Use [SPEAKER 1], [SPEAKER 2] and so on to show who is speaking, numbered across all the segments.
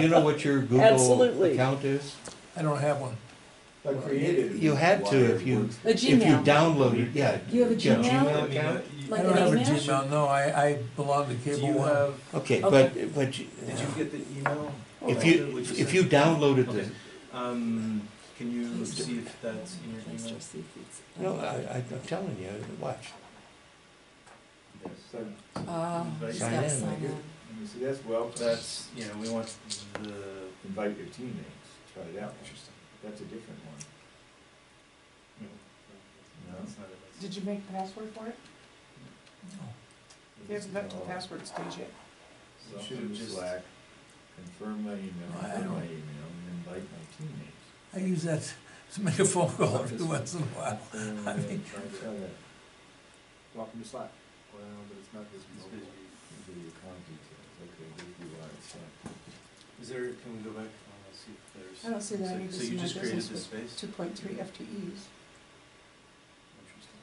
[SPEAKER 1] You know what your Google
[SPEAKER 2] Absolutely.
[SPEAKER 1] account is?
[SPEAKER 3] I don't have one.
[SPEAKER 4] I created.
[SPEAKER 1] You had to if you,
[SPEAKER 2] A
[SPEAKER 1] if you
[SPEAKER 2] Gmail.
[SPEAKER 1] downloaded, yeah.
[SPEAKER 2] You have a
[SPEAKER 1] yeah,
[SPEAKER 2] Gmail?
[SPEAKER 1] Gmail account?
[SPEAKER 2] Like
[SPEAKER 3] I don't
[SPEAKER 2] an
[SPEAKER 3] have a
[SPEAKER 2] email?
[SPEAKER 3] Gmail, no, I, I belong to
[SPEAKER 4] Do
[SPEAKER 3] Cable
[SPEAKER 4] you
[SPEAKER 3] One.
[SPEAKER 4] have,
[SPEAKER 2] Okay.
[SPEAKER 1] Okay, but, but you-
[SPEAKER 4] did you get the email?
[SPEAKER 1] if
[SPEAKER 4] Oh,
[SPEAKER 1] you,
[SPEAKER 4] what you
[SPEAKER 1] if
[SPEAKER 4] sent?
[SPEAKER 1] you downloaded
[SPEAKER 4] Okay.
[SPEAKER 1] the,
[SPEAKER 4] Um, can you
[SPEAKER 2] Please
[SPEAKER 4] see
[SPEAKER 2] don't.
[SPEAKER 4] if that's in your
[SPEAKER 2] Let's
[SPEAKER 4] email?
[SPEAKER 2] just see if it's-
[SPEAKER 1] no, I, I'm telling you, watch.
[SPEAKER 2] Oh,
[SPEAKER 4] So, Invite
[SPEAKER 2] she's
[SPEAKER 1] sign
[SPEAKER 2] gotta
[SPEAKER 1] in,
[SPEAKER 2] sign
[SPEAKER 1] like it.
[SPEAKER 2] in.
[SPEAKER 4] you see, that's well. That's, you know, we want the.
[SPEAKER 5] Invite your teammates, try it out, that's a different one.
[SPEAKER 4] No, that's not it. That's-
[SPEAKER 6] Did you make the password for it? You haven't got to the password stage yet.
[SPEAKER 4] So
[SPEAKER 5] Should
[SPEAKER 4] I'm
[SPEAKER 5] have
[SPEAKER 4] just-
[SPEAKER 5] Slack, confirm my email,
[SPEAKER 3] I- I
[SPEAKER 5] confirm my
[SPEAKER 3] don't-
[SPEAKER 5] email, and invite my teammates.
[SPEAKER 3] I use that to make a phone call every once in a while. I
[SPEAKER 5] Confirm,
[SPEAKER 3] think-
[SPEAKER 5] try that.
[SPEAKER 4] Welcome to Slack.
[SPEAKER 5] Well, but it's not this
[SPEAKER 4] It's
[SPEAKER 5] mobile. These are your account details, okay, there's your wire, it's not-
[SPEAKER 4] Is there, can we go back, uh, see if there's.
[SPEAKER 6] I don't see that
[SPEAKER 4] so-
[SPEAKER 6] any of
[SPEAKER 4] So
[SPEAKER 6] this
[SPEAKER 4] you
[SPEAKER 6] in my
[SPEAKER 4] just created
[SPEAKER 6] business
[SPEAKER 4] this space?
[SPEAKER 6] Two point three FTEs.
[SPEAKER 4] Interesting.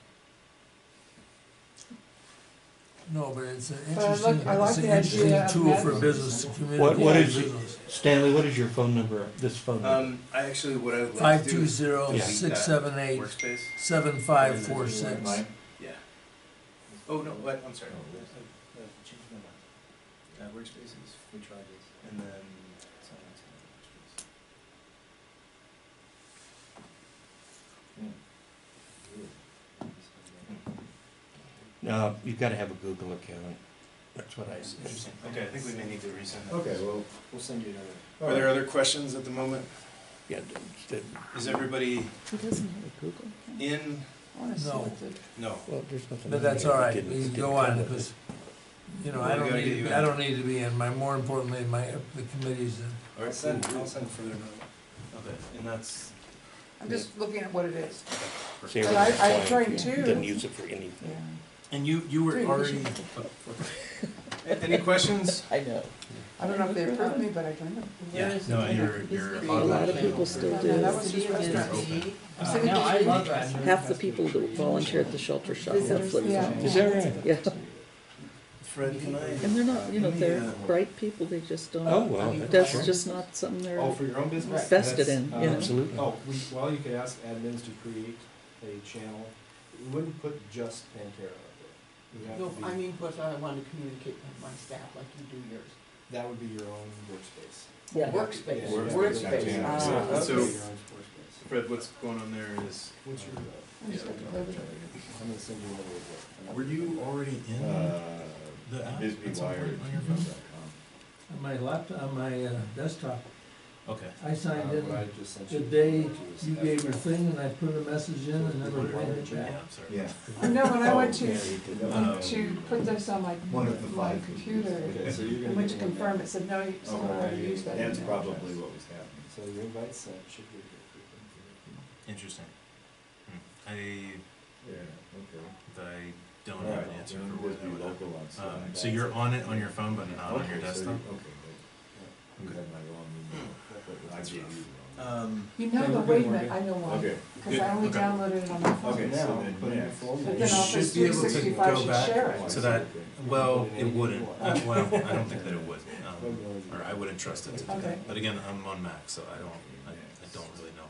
[SPEAKER 3] No, but it's an
[SPEAKER 6] But I like-
[SPEAKER 3] interesting,
[SPEAKER 6] I like
[SPEAKER 3] it's an
[SPEAKER 6] the idea
[SPEAKER 3] interesting
[SPEAKER 6] of
[SPEAKER 3] tool for
[SPEAKER 6] that.
[SPEAKER 3] business, to
[SPEAKER 1] What- what
[SPEAKER 3] communicate
[SPEAKER 1] is it?
[SPEAKER 3] business.
[SPEAKER 1] Stanley, what is your phone number, this phone number?
[SPEAKER 4] Um, I actually, what I would like
[SPEAKER 3] Five
[SPEAKER 4] to do
[SPEAKER 3] two
[SPEAKER 4] is
[SPEAKER 3] zero six seven eight
[SPEAKER 4] workspace.
[SPEAKER 3] seven five four
[SPEAKER 5] Is there
[SPEAKER 3] six.
[SPEAKER 5] mine?
[SPEAKER 4] Yeah. Oh, no, what, I'm sorry.
[SPEAKER 5] No, that's-
[SPEAKER 4] Uh, change my mind. Uh, workspaces, we tried this, and then. it's not- it's not workspace.
[SPEAKER 5] yeah.
[SPEAKER 1] No, Uh, you've gotta have a Google account, that's what I
[SPEAKER 4] Interesting.
[SPEAKER 1] said.
[SPEAKER 4] Okay, I think we may need to resend that.
[SPEAKER 5] Okay, well,
[SPEAKER 4] We'll send you another.
[SPEAKER 5] all
[SPEAKER 4] Are there
[SPEAKER 5] right,
[SPEAKER 4] other questions at the moment?
[SPEAKER 1] Yeah, the-
[SPEAKER 4] Is everybody
[SPEAKER 2] He doesn't have a Google account.
[SPEAKER 4] in?
[SPEAKER 2] I wanna see
[SPEAKER 3] No.
[SPEAKER 2] what the-
[SPEAKER 4] No.
[SPEAKER 1] well, there's nothing.
[SPEAKER 3] But
[SPEAKER 1] on
[SPEAKER 3] that's
[SPEAKER 1] here
[SPEAKER 3] all
[SPEAKER 1] that
[SPEAKER 3] right,
[SPEAKER 1] didn't-
[SPEAKER 3] you
[SPEAKER 1] that
[SPEAKER 3] go
[SPEAKER 1] didn't
[SPEAKER 3] on,
[SPEAKER 1] come with
[SPEAKER 3] because,
[SPEAKER 1] it.
[SPEAKER 3] you know, I don't
[SPEAKER 4] Gotta get
[SPEAKER 3] need,
[SPEAKER 4] you
[SPEAKER 3] I
[SPEAKER 4] in.
[SPEAKER 3] don't need to be in my, more importantly, my, the committees. and-
[SPEAKER 4] All right, send, I'll send further note of it, and that's.
[SPEAKER 6] I'm just looking at what it is.
[SPEAKER 1] Sarah
[SPEAKER 6] But I-
[SPEAKER 1] was
[SPEAKER 6] I
[SPEAKER 1] blind,
[SPEAKER 6] tried
[SPEAKER 1] yeah,
[SPEAKER 6] to.
[SPEAKER 1] Didn't use it for anything.
[SPEAKER 2] Yeah.
[SPEAKER 4] And you, you were
[SPEAKER 6] Three, we
[SPEAKER 4] already.
[SPEAKER 6] should-
[SPEAKER 4] A- Any questions?
[SPEAKER 2] I know.
[SPEAKER 6] I don't know if they approved me, but I joined them.
[SPEAKER 4] Yeah, no, you're, you're.
[SPEAKER 1] A lot of people
[SPEAKER 2] still
[SPEAKER 6] do. That was just restaurants. I'm saying
[SPEAKER 7] No, I
[SPEAKER 6] just-
[SPEAKER 7] love that.
[SPEAKER 8] Half the people that volunteer at the shelter shop are
[SPEAKER 6] Visitors,
[SPEAKER 8] flip
[SPEAKER 6] yeah.
[SPEAKER 8] phones.
[SPEAKER 1] Is that right?
[SPEAKER 8] Yeah,
[SPEAKER 4] Fred, can I?
[SPEAKER 8] and they're not, you know,
[SPEAKER 4] Let me,
[SPEAKER 8] they're
[SPEAKER 4] uh,
[SPEAKER 8] bright people, they just
[SPEAKER 1] Oh,
[SPEAKER 8] don't,
[SPEAKER 1] well.
[SPEAKER 8] that's
[SPEAKER 1] sure.
[SPEAKER 8] just not something
[SPEAKER 4] Oh,
[SPEAKER 8] they're
[SPEAKER 4] for your own business?
[SPEAKER 8] vested
[SPEAKER 4] That's-
[SPEAKER 8] in, you know.
[SPEAKER 1] Absolutely.
[SPEAKER 7] Oh, we, well, you could ask admins to create a channel, we wouldn't put just Pantera up there. It would have to
[SPEAKER 9] I
[SPEAKER 7] be-
[SPEAKER 9] mean, but I want to communicate with my staff like you do yours.
[SPEAKER 7] That would be your own workspace.
[SPEAKER 8] Yeah.
[SPEAKER 7] Yeah,
[SPEAKER 9] Workspace,
[SPEAKER 7] yeah.
[SPEAKER 9] workspace.
[SPEAKER 7] Yeah.
[SPEAKER 9] ah,
[SPEAKER 7] That would be
[SPEAKER 4] So-
[SPEAKER 7] your own workspace.
[SPEAKER 4] Fred, what's going on there is.
[SPEAKER 7] What's your, uh,
[SPEAKER 6] I just got to play with it.
[SPEAKER 7] I'm gonna send you a little bit.
[SPEAKER 4] Were you already in? the
[SPEAKER 5] Uh,
[SPEAKER 4] app
[SPEAKER 5] Bisbee
[SPEAKER 4] at some
[SPEAKER 5] Wire,
[SPEAKER 4] point on your
[SPEAKER 5] at
[SPEAKER 4] phone?
[SPEAKER 5] gmail.com.
[SPEAKER 3] On my laptop, on my uh, desktop,
[SPEAKER 4] Okay.
[SPEAKER 3] I signed
[SPEAKER 7] Uh, what I
[SPEAKER 3] in
[SPEAKER 7] just sent
[SPEAKER 3] the
[SPEAKER 7] you.
[SPEAKER 3] day you gave your thing, and I put a message in, and never went it back.
[SPEAKER 4] Yeah, I'm sorry.
[SPEAKER 5] Yeah.
[SPEAKER 6] I know, when I went
[SPEAKER 5] Yeah,
[SPEAKER 6] to,
[SPEAKER 5] you did that.
[SPEAKER 4] Um,
[SPEAKER 6] to put this on my,
[SPEAKER 5] One of the
[SPEAKER 6] my
[SPEAKER 5] five.
[SPEAKER 6] computer,
[SPEAKER 7] Okay, so you're
[SPEAKER 6] I
[SPEAKER 7] gonna.
[SPEAKER 6] went to
[SPEAKER 7] get one now.
[SPEAKER 6] confirm, it said, no, you still
[SPEAKER 5] Oh,
[SPEAKER 6] have to use that.
[SPEAKER 5] that's
[SPEAKER 6] email.
[SPEAKER 5] probably what was happening.
[SPEAKER 7] So your invite sent, should be.
[SPEAKER 4] Interesting. Hmm. I,
[SPEAKER 5] Yeah, okay.
[SPEAKER 4] I don't have an
[SPEAKER 5] Alright,
[SPEAKER 4] answer
[SPEAKER 5] then
[SPEAKER 4] for
[SPEAKER 5] we'll
[SPEAKER 4] what
[SPEAKER 5] just
[SPEAKER 4] that
[SPEAKER 5] be
[SPEAKER 4] would have.
[SPEAKER 5] local on Slack.
[SPEAKER 4] Um, so you're on it on your phone, but not on your
[SPEAKER 5] Okay, so you-
[SPEAKER 4] desktop?
[SPEAKER 5] Okay, good. You had my wrong
[SPEAKER 7] Oh,
[SPEAKER 5] email. but I
[SPEAKER 4] That's
[SPEAKER 5] gave you
[SPEAKER 4] rough.
[SPEAKER 5] the wrong
[SPEAKER 4] Um,
[SPEAKER 6] You know, the wait a minute, I know
[SPEAKER 5] email.
[SPEAKER 6] why,
[SPEAKER 5] Okay,
[SPEAKER 6] because I only
[SPEAKER 4] Okay.
[SPEAKER 6] downloaded it on my phone.
[SPEAKER 5] Okay,
[SPEAKER 7] Okay,
[SPEAKER 5] so
[SPEAKER 7] now,
[SPEAKER 5] then
[SPEAKER 7] put in your
[SPEAKER 5] next.
[SPEAKER 7] full
[SPEAKER 6] But
[SPEAKER 7] name.
[SPEAKER 6] then Office
[SPEAKER 4] should be
[SPEAKER 6] three
[SPEAKER 4] able to
[SPEAKER 6] sixty-five
[SPEAKER 4] go
[SPEAKER 6] should
[SPEAKER 4] back
[SPEAKER 6] share it.
[SPEAKER 4] to that, well, it wouldn't, Uh, well, I don't think that it would, um, or I wouldn't trust it to do
[SPEAKER 6] Okay.
[SPEAKER 4] that. But again, I'm on Mac, so I don't, I, I don't really know.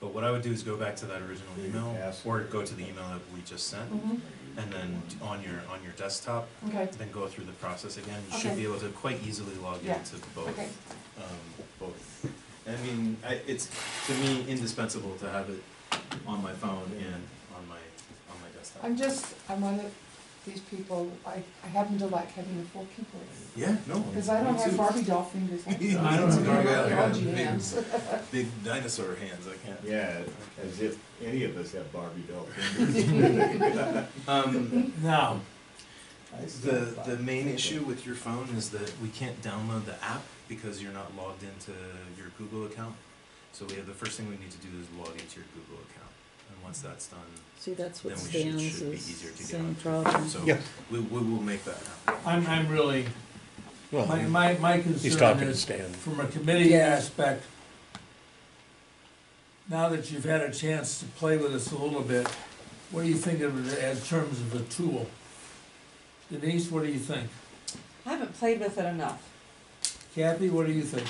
[SPEAKER 4] But what I would do is go back to that original email, or go to the email that we just sent,
[SPEAKER 6] Mhm,
[SPEAKER 4] and then d- on your, on your desktop,
[SPEAKER 6] okay,
[SPEAKER 4] then go through the process again. You should
[SPEAKER 6] Okay.
[SPEAKER 4] be able to quite easily log
[SPEAKER 6] Yeah.
[SPEAKER 4] into both,
[SPEAKER 6] okay.
[SPEAKER 4] um, both. I mean, I, it's, to me, indispensable to have it on my phone and on my, on my desktop.
[SPEAKER 6] I'm just, I'm one of these people, I, I happen to like having a full keyboard,
[SPEAKER 4] Yeah, no.
[SPEAKER 6] because I don't
[SPEAKER 4] me
[SPEAKER 6] have
[SPEAKER 4] too.
[SPEAKER 6] Barbie doll fingers.
[SPEAKER 4] I don't have Barbie doll
[SPEAKER 6] Large
[SPEAKER 4] fingers.
[SPEAKER 6] hands.
[SPEAKER 4] Big dinosaur hands, I can't.
[SPEAKER 5] yeah, as if any of us have Barbie doll fingers.
[SPEAKER 4] Um,
[SPEAKER 3] Now,
[SPEAKER 4] the, the main issue with your phone is that we can't download the app because you're not logged into your Google account. So we have, the first thing we need to do is log into your Google account. And once that's done,
[SPEAKER 8] See, that's what
[SPEAKER 4] Then we should- should
[SPEAKER 8] Stan's
[SPEAKER 4] be
[SPEAKER 8] is
[SPEAKER 4] easier to get
[SPEAKER 8] same
[SPEAKER 4] onto.
[SPEAKER 8] problem.
[SPEAKER 4] so
[SPEAKER 1] Yeah.
[SPEAKER 4] we, we will make that happen.
[SPEAKER 3] I'm, I'm really, my,
[SPEAKER 1] Well,
[SPEAKER 3] my, my
[SPEAKER 1] he's
[SPEAKER 3] concern
[SPEAKER 1] talking to
[SPEAKER 3] is,
[SPEAKER 1] Stan.
[SPEAKER 3] from a committee
[SPEAKER 8] Yeah.
[SPEAKER 3] aspect, now that you've had a chance to play with us a little bit, what do you think of it as terms of a tool? Denise, what do you think?
[SPEAKER 2] I haven't played with it enough.
[SPEAKER 3] Kathy, what do you think?